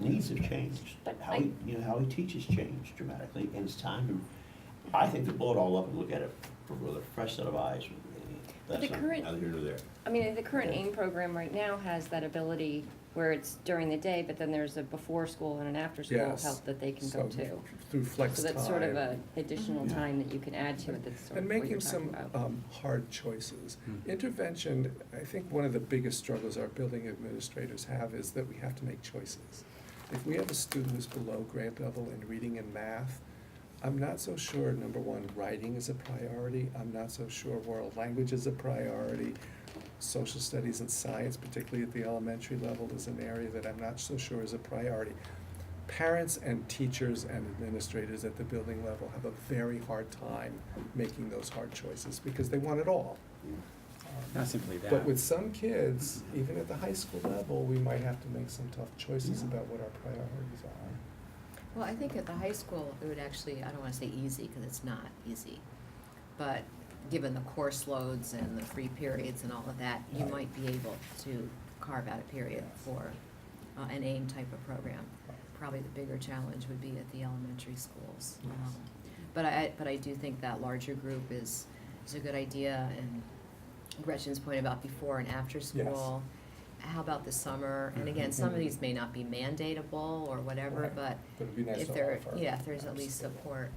needs have changed. But How I- he, you know, how he teaches changed dramatically, and it's time to, I think to blow it all up and look at it with a fresh set of eyes. But the That's not current- Neither here nor there. I mean, the current Yeah. AIM program right now has that ability where it's during the day, but then there's a before school and an after school Yes. help that they can go So, to. Through flex So time. that's sort of a additional Mhm. time that you can add to it, that's sort And of what you're making talking some about. um, hard choices. Hmm. Intervention, I think one of the biggest struggles our building administrators have is that we have to make choices. If we have a student who's below grade level in reading and math, I'm not so sure, number one, writing is a priority. I'm not so sure world language is a priority. Social studies and science, particularly at the elementary level, is an area that I'm not so sure is a priority. Parents and teachers and administrators at the building level have a very hard time making those hard choices because they want it all. Not simply that. But with some kids, even at the high school level, we might have to make some tough choices about what our priorities are. Well, I think at the high school, it would actually, I don't wanna say easy, cause it's not easy. But given the course loads and the free periods and all of that, you Right. might be able to carve out a period Yes. for uh, an AIM type of program. Probably the bigger challenge would be at the elementary schools. Yes. Um, But I, but I do think that larger group is, is a good idea and Gretchen's point about before and after school. How about the summer? And again, some of Mhm. these may not be mandatable or whatever, Right. but But it'd be nice if to there, offer. yeah, if there's at least Absolutely. support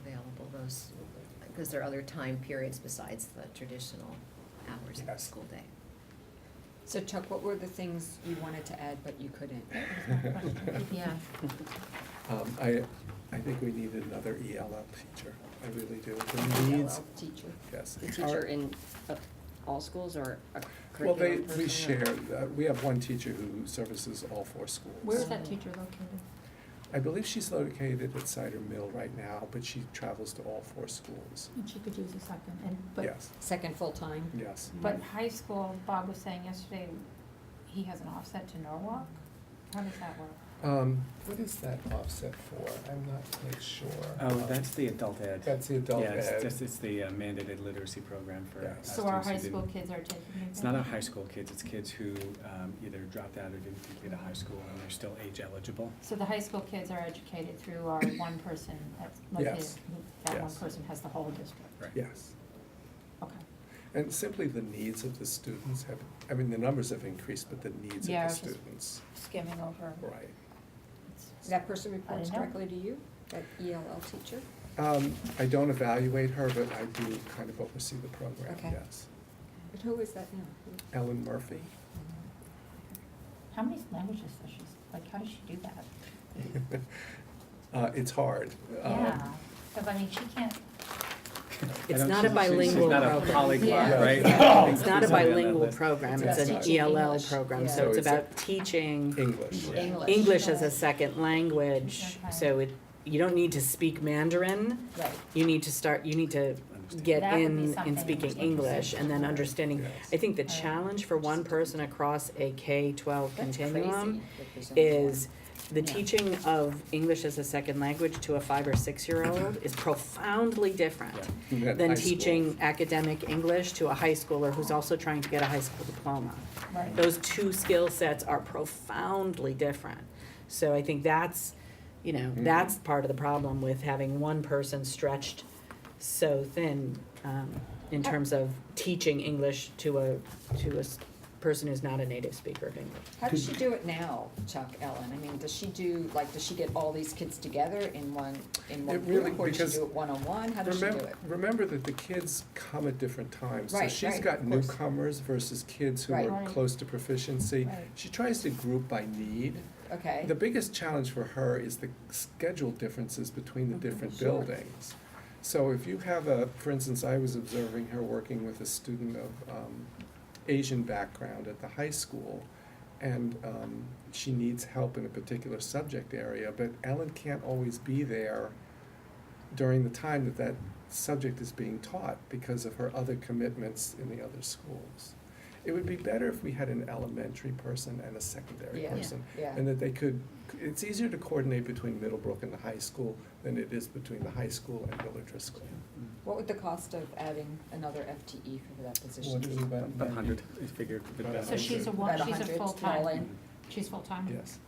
available, those, because there are other time periods besides the traditional hours of the Yes. school day. So Chuck, what were the things you wanted to add but you couldn't? Yeah. Um, I, I think we need another ELL teacher, I really E do, the needs, Teacher. yes. The Our- teacher in uh, all schools or a Well, curriculum they, person? we or- share, uh, we have one teacher who services all four schools. Where is that that teacher located? I believe she's located at Cider Mill right now, but she travels to all four schools, And she could use a second, and, but, yes, Second full-time? yes. but high school, Bob was saying yesterday, he has an offset to Norwalk? How does that work? Um, what is that offset for? I'm not quite sure. Oh, Um, that's the adult ed. That's the adult Yeah, it's ed. just, it's the uh, mandated literacy program for Yeah. uh, students who So our high didn't- school kids are taking it? It's not then? our high school kids, it's kids who um, either dropped out or didn't complete a high school and they're still age eligible. So the high school kids are educated through our one person that's located, Yes. that one Yes. person has the whole district? Right. Yes, Okay. and simply the needs of the students have, I mean, the numbers have increased, but the needs of Yeah, I the was just- students, Skimming over. right. That person reports I don't know. directly to you, that ELL teacher? Um, I don't evaluate her, but I do kind of oversee the program, Okay. yes. But who is that now? Ellen Murphy, How many languages does she, like, how does she do that? uh, it's hard. um, Yeah, because I mean, she can't, I It's don't- not a she's- she's- bilingual She's program. not a polyglot, Yeah. right? It's not a She's on that bilingual list. program, It's about it's an E teaching ELL English. program, Yeah. so it's So it's a- about teaching English. English. English as a second language, Okay. so it, you don't need to speak Mandarin, Right. you need to start, you need to Understand. get That would be in something in speaking interesting. English and then understanding. Yes. I think the Right. challenge for one person across a K-12 continuum That's crazy. is the teaching of English as a second language to a five or six-year-old is profoundly different At high than school. teaching academic English to a high schooler who's also trying to get a high school diploma. right. Those two skill sets are profoundly different. So I think that's, you know, Mhm. that's part of the problem with having one person stretched so thin um, in terms of teaching English to a, to a s- person who's not a native speaker of English. How does she do it now, Chuck, Ellen? I mean, does she do, like, does she get all these kids together in one, in one It really- group? Or does because- she do it one-on-one? How does she do Remember, it? remember that the kids come at different times, so Right, she's right, got of course. newcomers versus kids who Right. are Right. close to proficiency. Right. She tries to group by need. Okay. The biggest challenge for her is the schedule differences between the different sure. buildings. So if you have a, for instance, I was observing her working with a student of um, Asian background at the high school, and um, she needs help in a particular subject area, but Ellen can't always be there during the time that that subject is being taught because of her other commitments in the other schools. It would be better if we had an elementary person and a secondary Yeah. Yeah. person Yeah. and that they could, it's easier to coordinate between Middlebrook and the high school than it is between the high school and Miller Driscoll. Mm. What would the cost of adding another FTE for that position What is it be? about? About 100, I figured. but About about So she's a, About one- she's a 100 all full-time, in? she's full-time? Yes,